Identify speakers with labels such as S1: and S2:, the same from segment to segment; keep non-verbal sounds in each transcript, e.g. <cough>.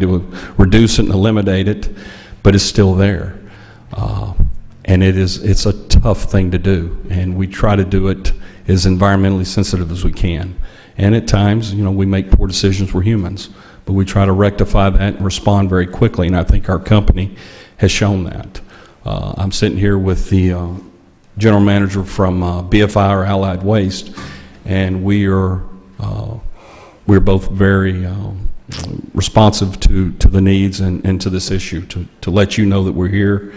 S1: to reduce it and eliminate it, but it's still there. Uh, And it is, it's a tough thing to do, and we try to do it as environmentally sensitive as we can. And at times, you know, we make poor decisions, we're humans, but we try to rectify that and respond very quickly, and I think our company has shown that. Uh, I'm sitting here with the uh, general manager from uh, BFI or Allied Waste, and we are uh, we're both very um, responsive to, to the needs and, and to this issue, to, to let you know that we're here,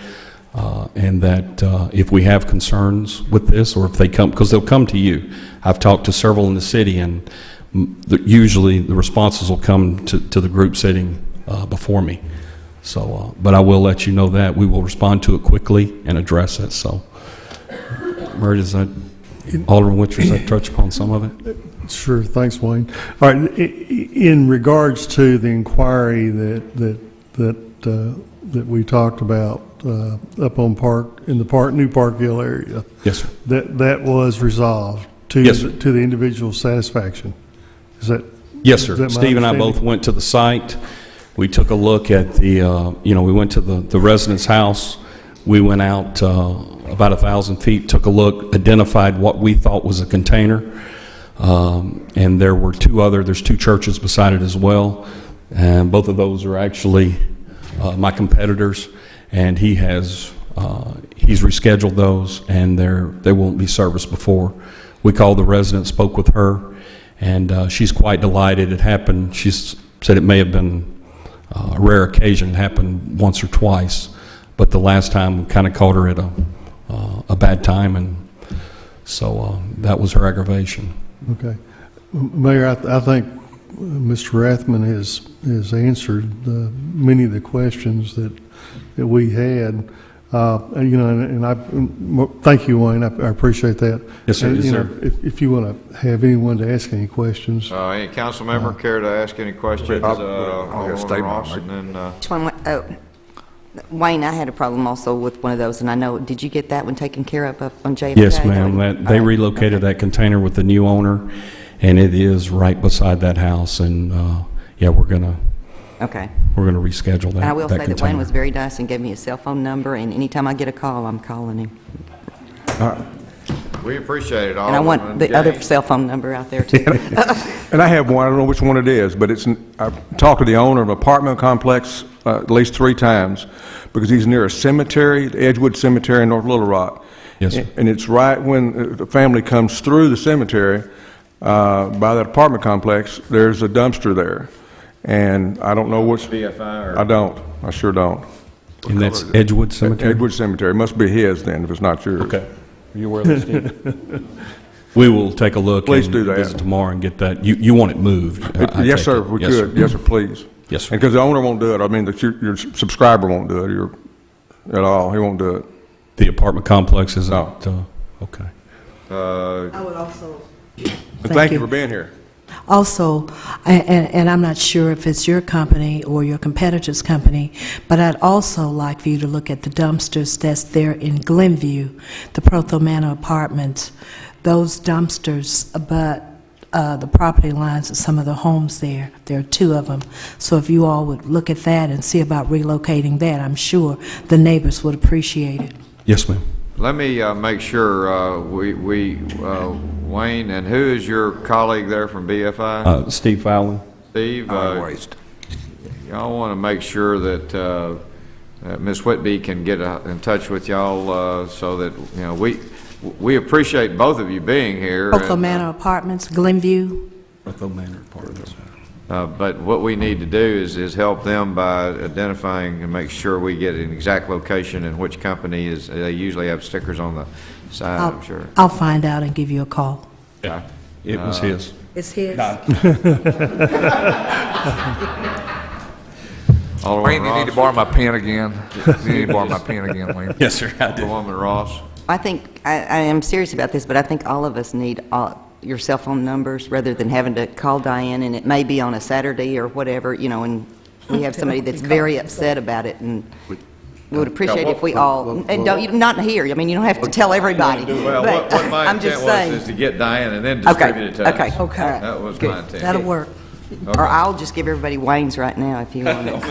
S1: uh, and that uh, if we have concerns with this, or if they come, because they'll come to you. I've talked to several in the city, and mm, the- usually the responses will come to, to the group sitting uh, before me. So, uh, but I will let you know that, we will respond to it quickly and address it, so. Murray, does that, Alderman Winters, does that touch upon some of it?
S2: Sure, thanks, Wayne. All right, i- i- in regards to the inquiry that, that, that, uh, that we talked about uh, up on Park, in the Park, New Parkville area,
S1: Yes, sir.
S2: that, that was resolved to,
S1: Yes, sir.
S2: to the individual's satisfaction. Is that?
S1: Yes,
S2: is
S1: sir.
S2: that my
S1: Steve and I
S2: understanding?
S1: both went to the site. We took a look at the, uh, you know, we went to the the resident's house. We went out uh, about a 1,000 feet, took a look, identified what we thought was a container. Um, And there were two other, there's two churches beside it as well. And both of those are actually uh, my competitors. And he has, uh, he's rescheduled those, and they're, they won't be serviced before. We called the resident, spoke with her, and uh, she's quite delighted it happened. She said it may have been uh, a rare occasion, it happened once or twice, but the last time kind of caught her at a, uh, a bad time, and so uh, that was her aggravation.
S2: Okay. M- Mayor, I, th- I think uh, Mr. Rathman has, has answered the, many of the questions that, that we had. Uh, and, you know, and and I, and mo- thank you, Wayne, I I appreciate that.
S1: Yes, sir.
S2: And,
S1: Yes,
S2: you know,
S1: sir.
S2: If, if you want to have anyone to ask any questions,
S3: Uh, Any council member care to ask any questions?
S4: I'll-
S3: Uh,
S4: I'll get a
S3: Alderman
S4: statement,
S3: Ross,
S4: right?
S3: and then, uh,
S5: Which one, oh, Wayne, I had a problem also with one of those, and I know, did you get that one taken care of up on JFK?
S1: Yes, ma'am, that,
S5: Oh,
S1: they relocated that container with the new owner, and it is right beside that house, and, uh, yeah, we're gonna,
S5: Okay.
S1: we're gonna reschedule that, that
S5: And I will say that Wayne
S1: container.
S5: was very nice and gave me his cell phone number, and anytime I get a call, I'm calling him.
S3: we appreciate it,
S5: And I want
S3: Alderman
S5: the other
S3: James.
S5: cell phone number out
S1: <laughs>
S5: there, too.
S4: And I have one, I don't know which one it is, but it's, I talked to the owner of an apartment complex uh, at least three times, because he's near a cemetery, the Edgewood Cemetery in North Little Rock.
S1: Yes, sir.
S4: And it's right when uh, the family comes through the cemetery, uh, by that apartment complex, there's a dumpster there. And I don't know which,
S3: BFI
S4: I
S3: or
S4: don't, I sure don't.
S1: And that's Uh, Edgewood Cemetery?
S4: Edgewood Cemetery, must be his then, if it's not yours.
S1: Okay. Are you aware of this, <laughs> We will take a look.
S4: Please
S1: and
S4: do that.
S1: Visit tomorrow and get that, you, you want it moved? I- I
S4: Yes,
S1: take
S4: sir,
S1: it.
S4: if we
S1: Yes,
S4: could, yes, sir, please.
S1: Yes, sir.
S4: And because the owner won't do it, I mean, the- your your subscriber won't do it, your, at all, he won't do it.
S1: The apartment complex is
S4: No.
S1: out, uh, okay.
S3: uh,
S6: I would also.
S4: But Thank you for being here.
S6: Also, a- and, and I'm not sure if it's your company or your competitor's company, but I'd also like for you to look at the dumpsters that's there in Glenview, the Protho Manor Apartments. Those dumpsters abut uh, the property lines of some of the homes there. There are two of them. So if you all would look at that and see about relocating that, I'm sure the neighbors would appreciate it.
S1: Yes, ma'am.
S3: let me uh, make sure, uh, we, we, uh, Wayne, and who is your colleague there from BFI?
S1: Uh, Steve Fowler?
S3: Steve? uh, Y'all want to make sure that uh, that Ms. Whitby can get uh, in touch with y'all uh, so that, you know, we, we appreciate both of you being here. and,
S6: Protho
S3: uh,
S6: Manor Apartments, Glenview,
S3: Uh, But what we need to do is, is help them by identifying and make sure we get an exact location and which company is, they usually have stickers on the side, I'm
S5: Oh.
S3: sure.
S6: I'll find out and give you a call.
S1: Yeah. It was his.
S6: It's his?
S3: Alderman
S7: Wayne, you need to
S3: Ross,
S7: borrow my pen again. You need to
S3: <laughs>
S7: borrow my pen again, Wayne.
S1: Yes, sir, I did.
S3: Alderman Ross,
S5: I think, I, I am serious about this, but I think all of us need all, your cell phone numbers rather than having to call Diane, and it may be on a Saturday or whatever, you know, and we have somebody that's very upset about it, and we would appreciate if we all, and don't, you- not here, I mean, you don't have to tell everybody.
S3: well, what,
S5: but
S3: what my
S5: I'm just
S3: intent was
S5: saying.
S3: is to get Diane and then
S5: Okay,
S3: distribute it to us.
S5: okay, Okay. all right,
S3: That was
S5: good.
S3: my intent.
S6: That'll work.
S3: <laughs>
S5: Or I'll just give everybody Wayne's right now if you want it.